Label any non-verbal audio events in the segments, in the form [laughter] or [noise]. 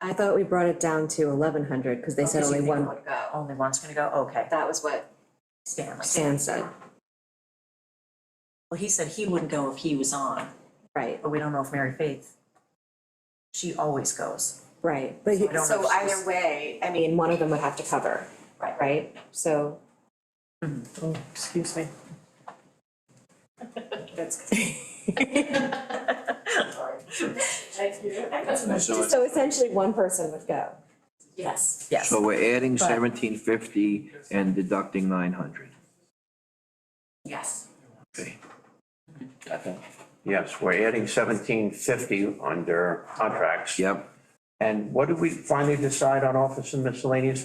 I thought we brought it down to eleven hundred, because they Oh, said Because you only think one, would go. Only one's gonna go, okay, that was what Stanley. Stan said, Well, he said he wouldn't go if he was on, right, but we don't know if Mary Faith, she always goes. right, but I he- don't know so if she's- either way, I mean, one of them would have to cover, Right. right? So, Mm-hmm. Oh, excuse me. That's. [laughs] So so essentially one person would go. Yes. Yes, So we're adding But- seventeen fifty and deducting nine hundred. Yes. Yes, we're adding seventeen fifty under contracts. Yep, And what did we finally decide on office and miscellaneous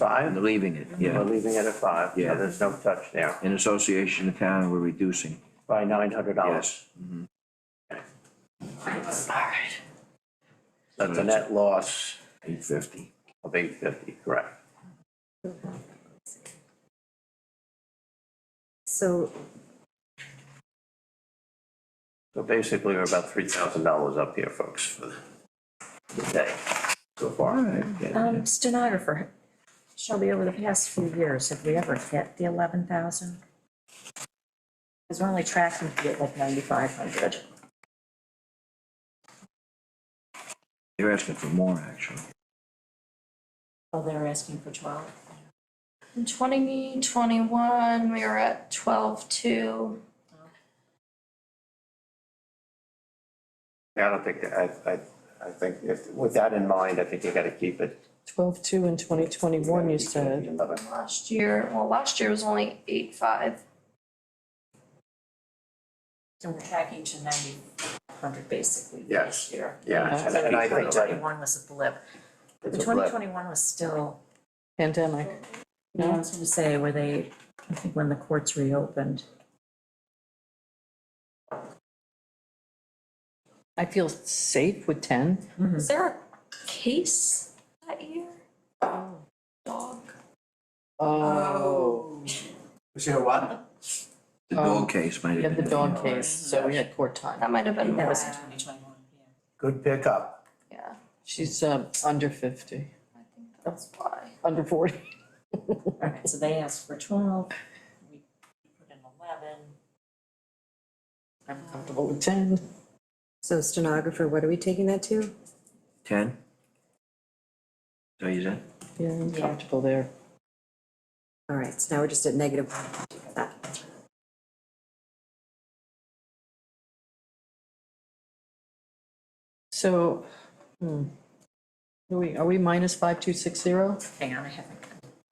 and five? leaving it, We're yeah. leaving it at five. Yeah. No, There's no touch there In association of town, we're reducing, by nine hundred dollars. yes. mhm. Alright. That's a net loss Eight fifty. of eight fifty, correct? So So basically, we're about three thousand dollars up here, folks, for the day so far. um, stenographer, Shelby, over the past few years, have we ever hit the eleven thousand? Cause we're only tracking to get like ninety-five hundred. They're asking for more, actually. Oh, they're asking for twelve? In twenty twenty-one, we were at twelve-two. I don't think, I, I, I think if, with that in mind, I think you gotta keep it. twelve two in twenty twenty-one, you said. Eleven. Last year, well, last year was only eight-five. So we're tracking to ninety hundred basically Yes. this year. Yeah, and- So and I twenty think that twenty-one was a blip. it's The a twenty blip. twenty-one was still, Pandemic. no, I was gonna say, where they, I think when the courts reopened. I feel safe with ten. Hmm. Is there a case that year? Dog. Oh. Was there what? The Um, dog case might We have had the been. dawn case, so we had court time. That might have That been one, was in twenty twenty-one, yeah. Good pickup. yeah. She's um under fifty, I think that's why. under forty. Alright, so they asked for twelve, we put in eleven. I'm comfortable with ten. So stenographer, what are we taking that to? Ten? So you said? Yeah, I'm Yeah. comfortable there. All right, so now we're just at negative that. So, hmm. Are we, are we minus five two six zero? Hang on, I haven't,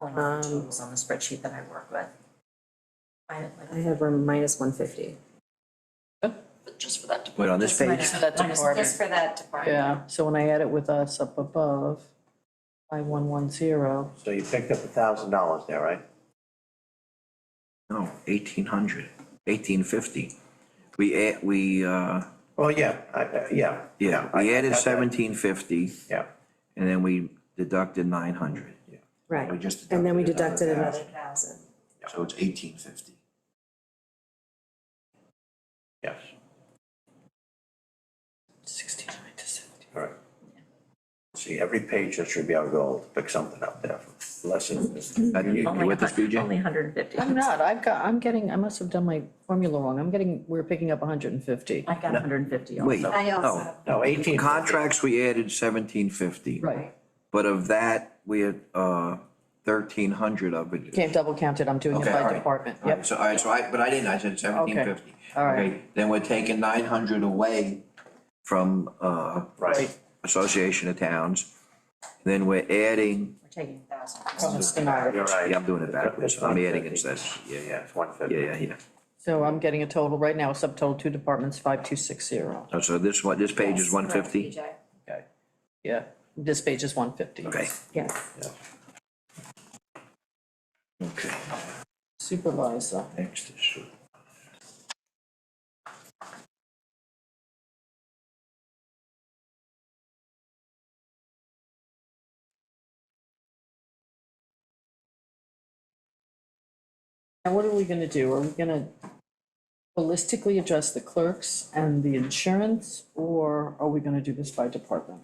pulling up the Um, totals on the spreadsheet that I work with. I, I like, have a minus one fifty. But just for that Wait, on this page? minus- that minus department. this for that department. Yeah, so when I add it with us up above, five one one zero, So you picked up a thousand dollars there, right? No, eighteen hundred, eighteen fifty. We add, we, uh, Well, yeah, I, I- yeah. yeah, I- we I added got that. seventeen fifty Yeah, and then we deducted nine hundred. Right. We just And then we deducted deducted another another thousand. So it's eighteen fifty. yes, sixty-nine to seventy. all right. See, every page, that should be our goal, to pick something up there, less than. You Only with this, hun- BJ? oh Only hundred and fifty. I'm not, I've got, I'm getting, I must have done my formula wrong, I'm getting, we're picking up hundred and fifty. I got hundred and fifty Wait, also. I also no. have No, eighteen. Contracts, we added seventeen fifty, Right, but of that, we had, uh, thirteen hundred of it. can't double count it, I'm doing it Okay, all by right. department, All right, yep, So, all right, so I, but I didn't, I said seventeen fifty. all right. Then we're taking nine hundred away from, uh, Right, Association of Towns. Then we're adding, We're taking a thousand. from the stenographer. you're right. yeah, I'm doing it backwards, It's I'm adding 150. instead, yeah, yeah, Yeah, it's one fifty. yeah, yeah, yeah. So I'm getting a total, right now, subtotal two departments, five two six zero, Oh, So this one, this page is one fifty? PJ. yeah, this page is one fifty. Okay, Yes, okay, Supervisor, next is. now what are we gonna do, are we gonna holistically address the clerks and the insurance, or are we gonna do this by department?